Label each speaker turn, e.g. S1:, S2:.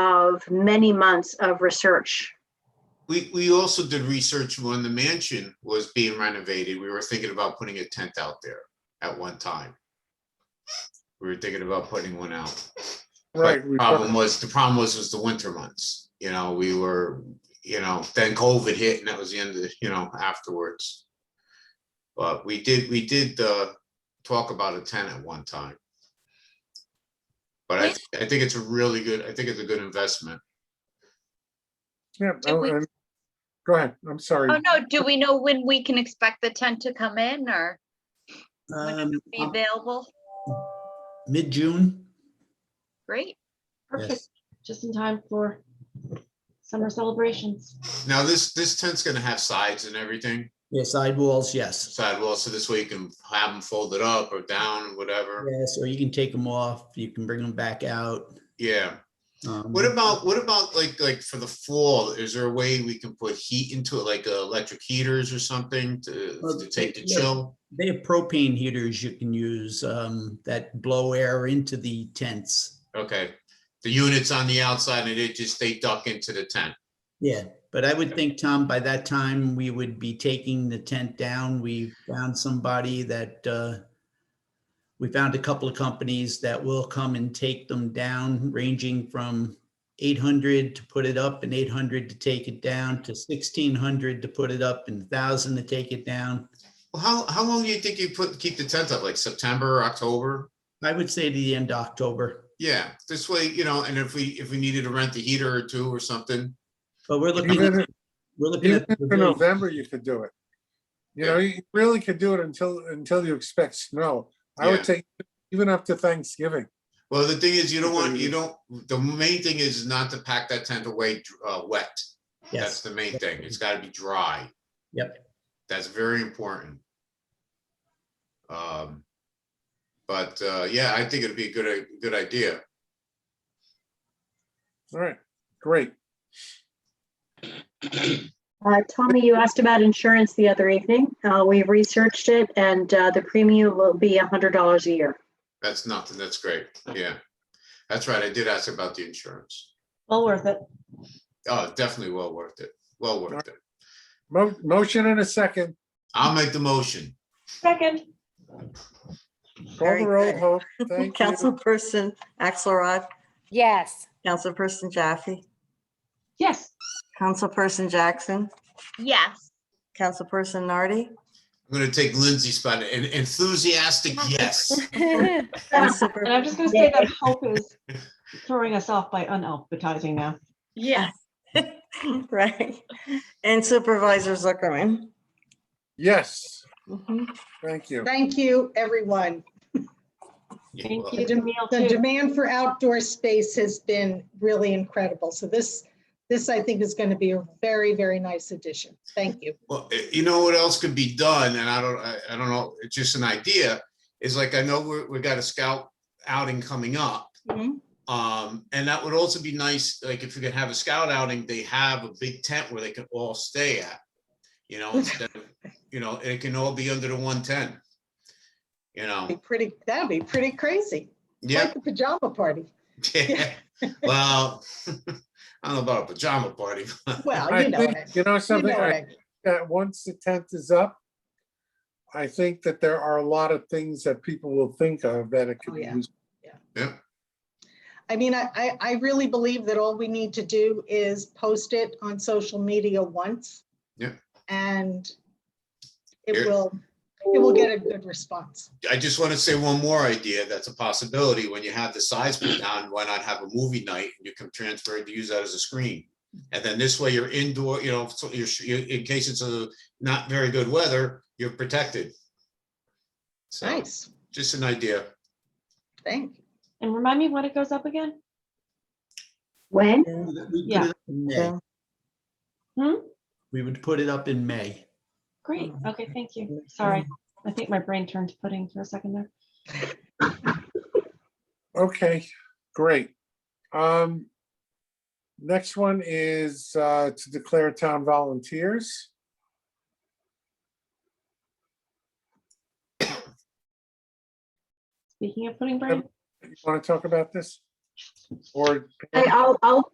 S1: of many months of research.
S2: We, we also did research when the mansion was being renovated. We were thinking about putting a tent out there at one time. We were thinking about putting one out. But
S3: Right.
S2: the
S3: we
S2: problem
S3: put-
S2: was, the problem was, was the winter months. You know, we were, you know, then COVID hit and that was the end of, the you know, afterwards. But we did, we did, uh, talk about a tent at one time. But I, I think it's a really good, I think it's a good investment.
S3: yeah,
S4: Did we-
S3: oh, and- Go ahead, I'm sorry.
S4: Oh, no, do we know when we can expect the tent to come in or
S5: Um,
S4: be available?
S5: mid-June,
S4: Great.
S6: Perfect, just in time for summer celebrations.
S2: Now, this, this tent's gonna have sides and everything,
S5: yeah, sidewalls, yes.
S2: sidewalls, so this way you can have them folded up or down, whatever.
S5: Yes, or you can take them off, you can bring them back out.
S2: Yeah.
S5: um,
S2: What about, what about like, like for the fall, is there a way we can put heat into it, like uh, electric heaters or something to,
S5: Well,
S2: to take the
S5: yeah.
S2: chill?
S5: They have propane heaters you can use um, that blow air into the tents.
S2: Okay, the units on the outside and it just, they duck into the tent.
S5: Yeah, but I would
S2: Yeah.
S5: think, Tom, by that time, we would be taking the tent down. We found somebody that uh, we found a couple of companies that will come and take them down, ranging from 800 to put it up and 800 to take it down to 1600 to put it up and 1000 to take it down.
S2: Well, how, how long do you think you put, keep the tent up, like September, October?
S5: I would say to the end of October.
S2: Yeah, this way, you know, and if we, if we needed to rent a heater or two or something,
S5: But we're looking,
S3: Even
S5: at-
S3: if-
S5: we're looking
S3: even
S5: at.
S3: if in November, you could do it. You know, you really could do it until, until you expect snow. I
S2: Yeah.
S3: would take even up to Thanksgiving.
S2: Well, the thing is, you don't want, you
S3: Mhm.
S2: don't, the main thing is not to pack that tent away uh, wet. That's
S5: Yes.
S2: the main thing. It's gotta be dry.
S5: Yep.
S2: That's very important. Um, but, uh, yeah, I think it'd be a good, a good idea.
S3: All right, great.
S1: Uh, Tommy, you asked about insurance the other evening. Uh, we researched it and, uh, the premium will be hundred dollars a year.
S2: That's nothing. That's great. Yeah. That's right. I did ask about the insurance.
S6: Well worth it.
S2: Oh, definitely well worth it. Well worth it.
S3: Mo- Motion in a second.
S2: I'll make the motion.
S6: Second,
S3: Call the
S7: Very
S3: roll,
S7: good.
S3: Hope. Thank you.
S7: Councilperson Axelrod,
S8: Yes.
S7: Councilperson Jaffe,
S6: yes.
S7: Councilperson Jackson,
S4: Yes.
S7: Councilperson Nardi,
S2: I'm gonna take Lindsay's spot. An enthusiastic yes.
S7: and
S6: And
S7: Super-
S6: I'm just gonna say that Hope is throwing us off by unalphabetizing now.
S4: Yes.
S7: right, and Supervisor Zuckerman.
S3: Yes,
S7: Mhm.
S3: thank you.
S9: Thank you, everyone.
S2: Yeah,
S6: Thank
S2: well,
S6: you, Jamil,
S9: The
S6: too.
S9: demand for outdoor space has been really incredible. So this, this I think is going to be a very, very nice addition. Thank you.
S2: Well, eh, you know what else could be done, and I don't, I, I don't know, it's just an idea, is like, I know we're, we got a scout outing coming up.
S7: Mhm.
S2: Um, and that would also be nice, like, if we could have a scout outing, they have a big tent where they can all stay at. You know, instead of, you know, it can all be under the one tent. You
S9: Be
S2: know,
S9: pretty, that'd be pretty crazy.
S2: yeah,
S9: Like a pajama party.
S2: well, I don't know about a pajama party, but
S9: Well,
S3: I
S9: you know
S3: think,
S9: what I,
S3: you know
S9: you
S3: something,
S9: know what
S3: I
S9: I mean.
S3: that once the tent is up, I think that there are a lot of things that people will think of that it could
S9: Oh,
S3: be
S9: yeah.
S3: used.
S2: yeah,
S9: I mean, I, I, I really believe that all we need to do is post it on social media once.
S2: Yeah.
S9: And
S2: Here.
S9: it will, it will get a good response.
S2: I just want to say one more idea that's a possibility. When you have the size put down, why not have a movie night? and You can transfer it to use that as a screen. And then this way you're indoor, you know, so you're, you- in case it's a not very good weather, you're protected. So
S9: Nice.
S2: just an idea.
S9: Thank you.
S6: And remind me when it goes up again?
S1: When?
S5: We put
S6: Yeah.
S5: it up in May.
S6: Hmm?
S5: We would put it up in May.
S6: Great. Okay, thank you. Sorry. I think my brain turned to pudding for a second there.
S3: Okay, great. Um, next one is uh, to declare town volunteers.
S6: Speaking of pudding brain,
S3: Want to talk about this? Or
S1: I, I'll, I'll,